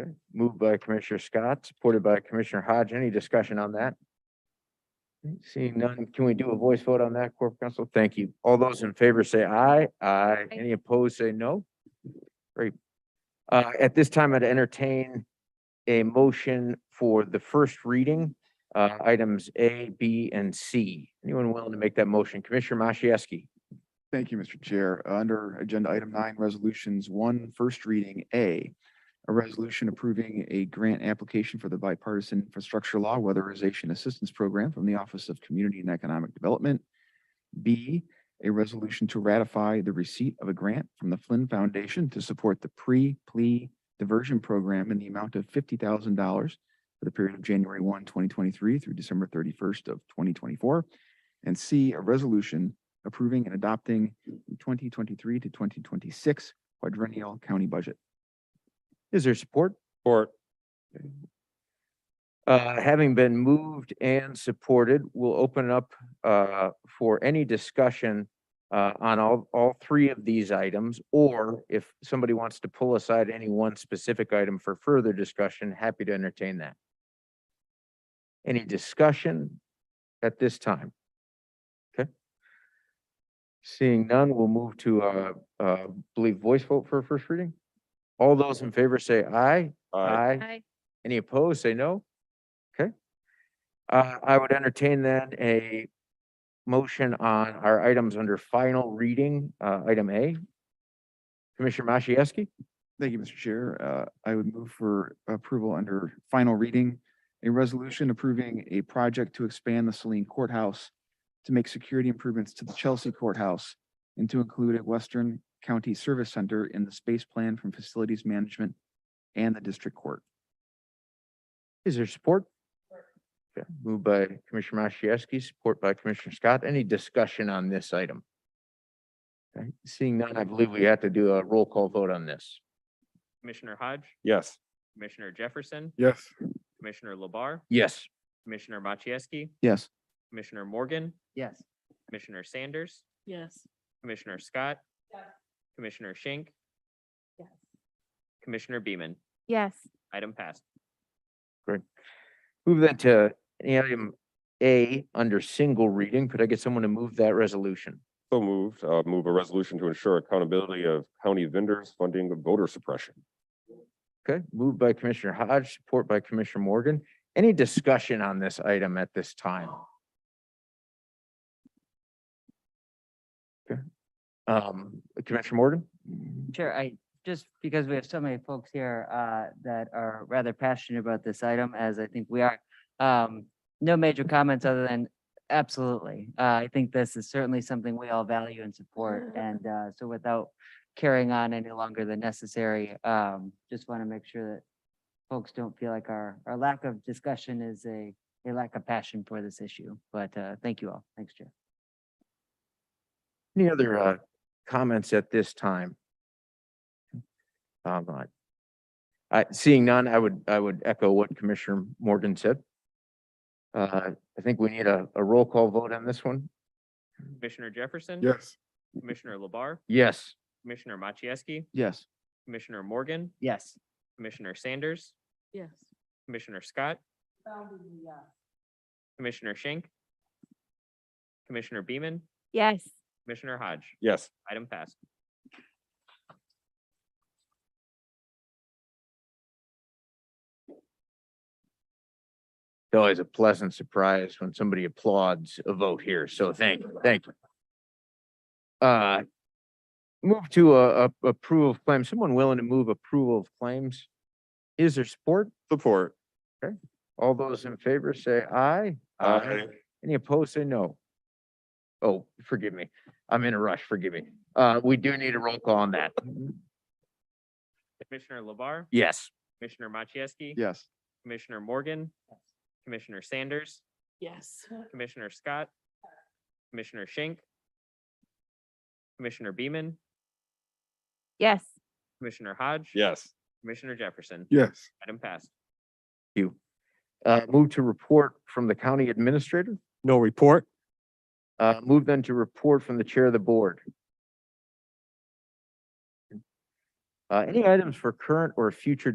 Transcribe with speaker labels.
Speaker 1: Okay, moved by Commissioner Scott, supported by Commissioner Hodge. Any discussion on that? Seeing none, can we do a voice vote on that, Corp Counsel? Thank you. All those in favor say aye. Aye. Any opposed, say no. Great. Uh, at this time, I'd entertain a motion for the first reading, uh, items A, B, and C. Anyone willing to make that motion? Commissioner Machewski?
Speaker 2: Thank you, Mr. Chair. Under Agenda Item Nine, Resolutions, one, first reading, A, a resolution approving a grant application for the bipartisan infrastructure law weatherization assistance program from the Office of Community and Economic Development. B, a resolution to ratify the receipt of a grant from the Flynn Foundation to support the pre-plea diversion program in the amount of fifty thousand dollars for the period of January 1, 2023, through December thirty-first of twenty twenty-four. And C, a resolution approving and adopting the 2023 to 2026 quadrennial county budget.
Speaker 1: Is there support?
Speaker 3: Support.
Speaker 1: Uh, having been moved and supported, we'll open up, uh, for any discussion uh, on all, all three of these items, or if somebody wants to pull aside any one specific item for further discussion, happy to entertain that. Any discussion at this time? Okay. Seeing none, we'll move to, uh, uh, believe voice vote for first reading. All those in favor say aye. Aye.
Speaker 4: Aye.
Speaker 1: Any opposed, say no. Okay. Uh, I would entertain then a motion on our items under final reading, uh, item A. Commissioner Machewski,
Speaker 2: Thank you, Mr. Chair. Uh, I would move for approval under final reading, a resolution approving a project to expand the Saline Courthouse to make security improvements to the Chelsea Courthouse and to include a Western County Service Center in the space plan from Facilities Management and the District Court.
Speaker 1: is there support? Okay, moved by Commissioner Machewski, support by Commissioner Scott. Any discussion on this item? Okay, Seeing none, I believe we have to do a roll call vote on this.
Speaker 5: Commissioner Hodge,
Speaker 3: Yes.
Speaker 5: Commissioner Jefferson,
Speaker 3: Yes.
Speaker 5: Commissioner Labar,
Speaker 1: Yes.
Speaker 5: Commissioner Machieski,
Speaker 2: Yes.
Speaker 5: Commissioner Morgan,
Speaker 4: Yes.
Speaker 5: Commissioner Sanders,
Speaker 4: Yes.
Speaker 5: Commissioner Scott,
Speaker 4: Yes.
Speaker 5: Commissioner Schenk,
Speaker 4: Yes.
Speaker 5: Commissioner Beaman.
Speaker 4: Yes.
Speaker 5: Item passed.
Speaker 1: Move that to item A under single reading. Could I get someone to move that resolution?
Speaker 3: So moved, uh, move a resolution to ensure accountability of county vendors funding of voter suppression.
Speaker 1: Okay, moved by Commissioner Hodge, support by Commissioner Morgan. Any discussion on this item at this time? Okay. Um, Commissioner Morgan?
Speaker 6: Chair, I, just because we have so many folks here uh, that are rather passionate about this item, as I think we are. um, No major comments other than absolutely. Uh, I think this is certainly something we all value and support. And uh, so without carrying on any longer than necessary, um, just want to make sure that folks don't feel like our, our lack of discussion is a, a lack of passion for this issue. But uh, thank you all. Thanks, Chair.
Speaker 1: Any other uh comments at this time? Um, I- I, seeing none, I would, I would echo what Commissioner Morgan said. Uh, I think we need a, a roll call vote on this one.
Speaker 5: Commissioner Jefferson.
Speaker 3: Yes.
Speaker 5: Commissioner Labar,
Speaker 1: Yes.
Speaker 5: Commissioner Machieski,
Speaker 2: Yes.
Speaker 5: Commissioner Morgan,
Speaker 6: Yes.
Speaker 5: Commissioner Sanders,
Speaker 4: Yes.
Speaker 5: Commissioner Scott, Commissioner Schenk, Commissioner Beaman,
Speaker 4: Yes.
Speaker 5: Commissioner Hodge.
Speaker 3: Yes.
Speaker 5: Item passed.
Speaker 1: It's always a pleasant surprise when somebody applauds a vote here, so thank, you, thank you. Uh, move to a, a approval of claims. Someone willing to move approval of claims? Is there support?
Speaker 3: Support.
Speaker 1: All those in favor say aye. Any opposed, say no. Oh, forgive me. I'm in a rush, forgive me. Uh, we do need a roll call on that.
Speaker 5: Commissioner Labar,
Speaker 1: Yes.
Speaker 5: Commissioner Machieski,
Speaker 2: Yes.
Speaker 5: Commissioner Morgan, Commissioner Sanders,
Speaker 4: Yes.
Speaker 5: Commissioner Scott, Commissioner Schenk, Commissioner Beaman,
Speaker 4: Yes.
Speaker 5: Commissioner Hodge.
Speaker 3: Yes.
Speaker 5: Commissioner Jefferson.
Speaker 3: Yes.
Speaker 5: Item passed.
Speaker 1: You. Uh, move to report from the county administrator.
Speaker 3: No report.
Speaker 1: Uh, move then to report from the chair of the board. Uh, any items for current or future